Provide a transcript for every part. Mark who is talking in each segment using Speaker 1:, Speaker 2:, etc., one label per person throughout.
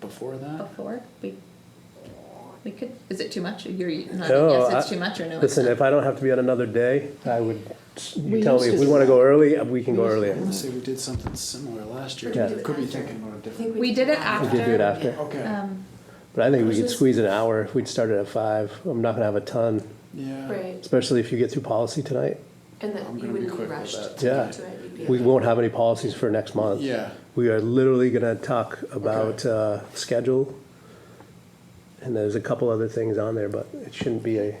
Speaker 1: before that?
Speaker 2: before, we, we could, is it too much? You're
Speaker 3: No,
Speaker 2: nodding, yes, it's
Speaker 3: I-
Speaker 2: too much or no, it's
Speaker 3: Listen,
Speaker 2: not?
Speaker 3: if I don't have to be on another day, I would, you
Speaker 4: We
Speaker 3: tell me, if
Speaker 4: used to
Speaker 3: we
Speaker 4: do
Speaker 3: want to
Speaker 4: that.
Speaker 3: go early, uh, we can go
Speaker 4: We used to
Speaker 1: I
Speaker 3: earlier.
Speaker 1: wanna say we did something similar last year,
Speaker 3: Yeah.
Speaker 1: but I could be thinking about a different.
Speaker 2: We did it
Speaker 3: We
Speaker 2: after.
Speaker 3: could do it after,
Speaker 1: Okay,
Speaker 2: Um,
Speaker 3: but I think we could
Speaker 4: Versus-
Speaker 3: squeeze an hour if we'd started at five. I'm not gonna have a ton,
Speaker 1: yeah.
Speaker 4: Right,
Speaker 3: especially if you get through policy tonight.
Speaker 4: and that
Speaker 1: I'm
Speaker 4: you
Speaker 1: gonna be
Speaker 4: wouldn't be
Speaker 1: quick with
Speaker 4: rushed
Speaker 1: that.
Speaker 4: to
Speaker 3: Yeah.
Speaker 4: get to it. You'd be
Speaker 3: We
Speaker 4: like-
Speaker 3: won't have any policies for next month.
Speaker 1: Yeah,
Speaker 3: We are literally gonna talk about, uh, schedule. And there's a couple other things on there, but it shouldn't be a,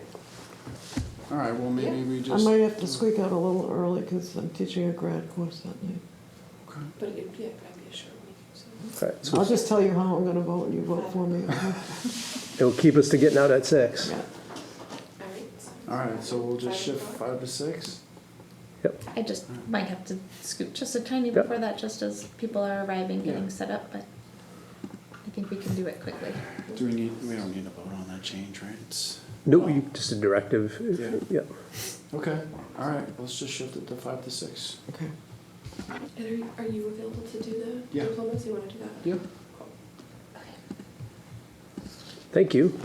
Speaker 1: all right, well, maybe we
Speaker 5: I
Speaker 1: just,
Speaker 5: might have to squeak out a little early because I'm teaching a grad course that night.
Speaker 1: Okay.
Speaker 4: But it'd be, yeah, probably be a short week, so.
Speaker 3: alright, so
Speaker 5: I'll just tell you how I'm gonna vote and you vote for me.
Speaker 3: it'll keep us to getting out at six.
Speaker 5: Yeah.
Speaker 4: All right. so-
Speaker 1: all right, so we'll just
Speaker 4: Five
Speaker 1: shift
Speaker 4: o'clock?
Speaker 1: five to six?
Speaker 2: I just might have to scoot just a tiny
Speaker 3: Yeah.
Speaker 2: before that, just as people are arriving,
Speaker 1: Yeah.
Speaker 2: getting set up, but I think we can do it quickly.
Speaker 1: Do we need, we don't need to vote on that change, right? It's,
Speaker 3: No, you- just a directive,
Speaker 1: Yeah.
Speaker 3: yeah.
Speaker 1: okay, all right, let's just shift it to five to six.
Speaker 5: Okay.
Speaker 4: And are, you- are you available to do the
Speaker 1: Yeah.
Speaker 4: diplomas? You wanna do that?
Speaker 1: Yep.
Speaker 3: Thank you.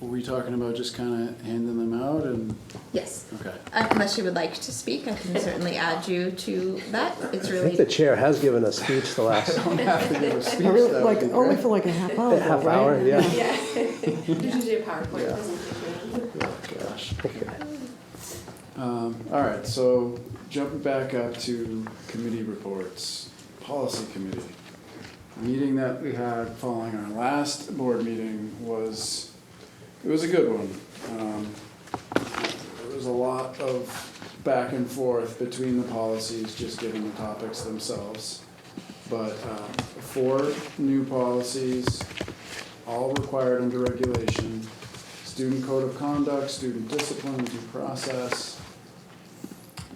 Speaker 1: Were we talking about just kinda handing them out and,
Speaker 2: Yes, Uh,
Speaker 1: okay.
Speaker 2: unless you would like to speak, I can certainly add you to that. It's
Speaker 3: I think the
Speaker 2: really,
Speaker 3: chair has given a speech the last
Speaker 1: Don't have to give a speech,
Speaker 5: I really,
Speaker 1: that would
Speaker 5: like,
Speaker 1: be
Speaker 5: only
Speaker 1: great.
Speaker 5: for like a half hour. though,
Speaker 3: half
Speaker 5: right?
Speaker 3: hour, Oh, yeah.
Speaker 4: Yeah. You should do a PowerPoint
Speaker 1: Yeah.
Speaker 4: presentation.
Speaker 1: Oh, Gosh. Um, all right, so jumping back up to committee reports, policy committee. Meeting that we had following our last board meeting was, it was a good one. Um, There was a lot of back and forth between the policies, just given the topics themselves. But, uh, four new policies, all required under regulation. Student code of conduct, student discipline, and due process,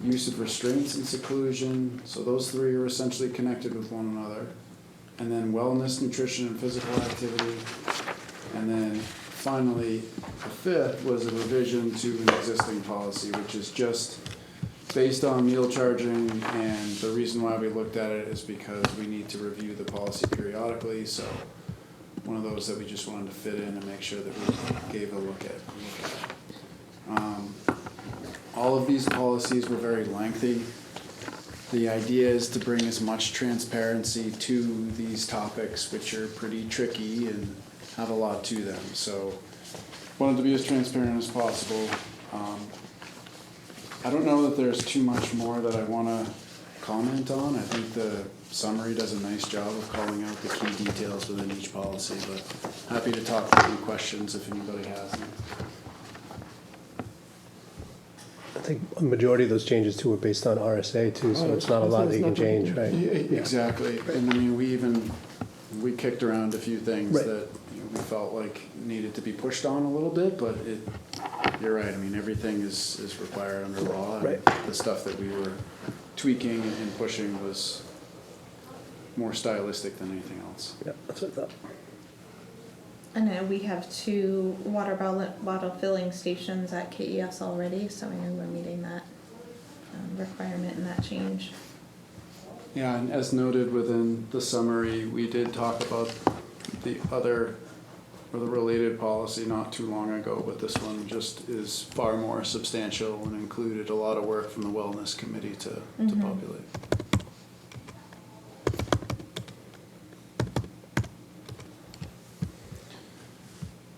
Speaker 1: use of restraints and seclusion, so those three are essentially connected with one another. And then wellness, nutrition, and physical activity. And then finally, the fifth was a revision to an existing policy, which is just based on meal charging, and the reason why we looked at it is because we need to review the policy periodically, so one of those that we just wanted to fit in and make sure that we gave a look at. look at. Um, All of these policies were very lengthy. The idea is to bring as much transparency to these topics, which are pretty tricky and have a lot to them, so wanted to be as transparent as possible. Um, I don't know that there's too much more that I want to comment on. I think the summary does a nice job of calling out the key details within each policy, but happy to talk through any questions if anybody has them.
Speaker 3: I think a majority of those changes too were based on RSA too, so it's Oh, not a lot that you can change, right?
Speaker 1: Exactly, and I mean, we even, we kicked around a few things
Speaker 3: Right.
Speaker 1: that you know, we felt like needed to be pushed on a little bit, but it, you're right, I mean, everything is, is required under law. and
Speaker 3: Right.
Speaker 1: The stuff that we were tweaking and pushing was more stylistic than anything else.
Speaker 3: Yeah, that's what I thought.
Speaker 2: I know we have two water bottle, bottle filling stations at KES already, so I know we're meeting that um, requirement and that change.
Speaker 1: Yeah, and as noted within the summary, we did talk about the other, or the related policy not too long ago, but this one just is far more substantial and included a lot of work from the wellness committee to, to
Speaker 2: Mhm.
Speaker 1: populate.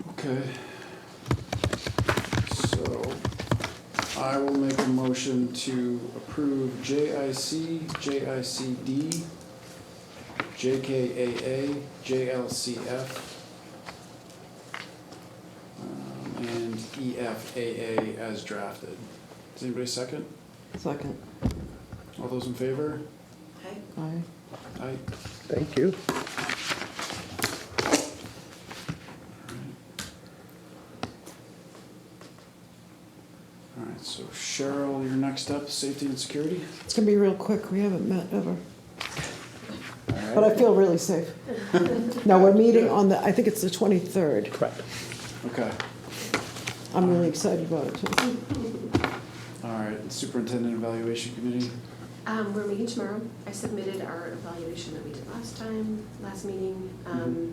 Speaker 1: Okay. So I will make a motion to approve JIC, JICD, JKAA, JLCF, um, and EFAA as drafted. Does anybody second?
Speaker 5: Second.
Speaker 1: All those in favor?
Speaker 4: Hi.
Speaker 5: Aye.
Speaker 1: Aye.
Speaker 3: Thank you.
Speaker 1: All right, so Cheryl, you're next up, safety and security.
Speaker 5: It's gonna be real quick. We haven't met ever,
Speaker 1: All right.
Speaker 5: but I feel really safe. Now, we're meeting on the, I think it's the twenty-third.
Speaker 3: Correct.
Speaker 1: Okay,
Speaker 5: I'm
Speaker 1: Uh-huh.
Speaker 5: really excited about it too.
Speaker 1: all right, superintendent evaluation committee.
Speaker 3: Mm-hmm.
Speaker 4: Um, we're meeting tomorrow. I submitted our evaluation that we did last time, last meeting. Um,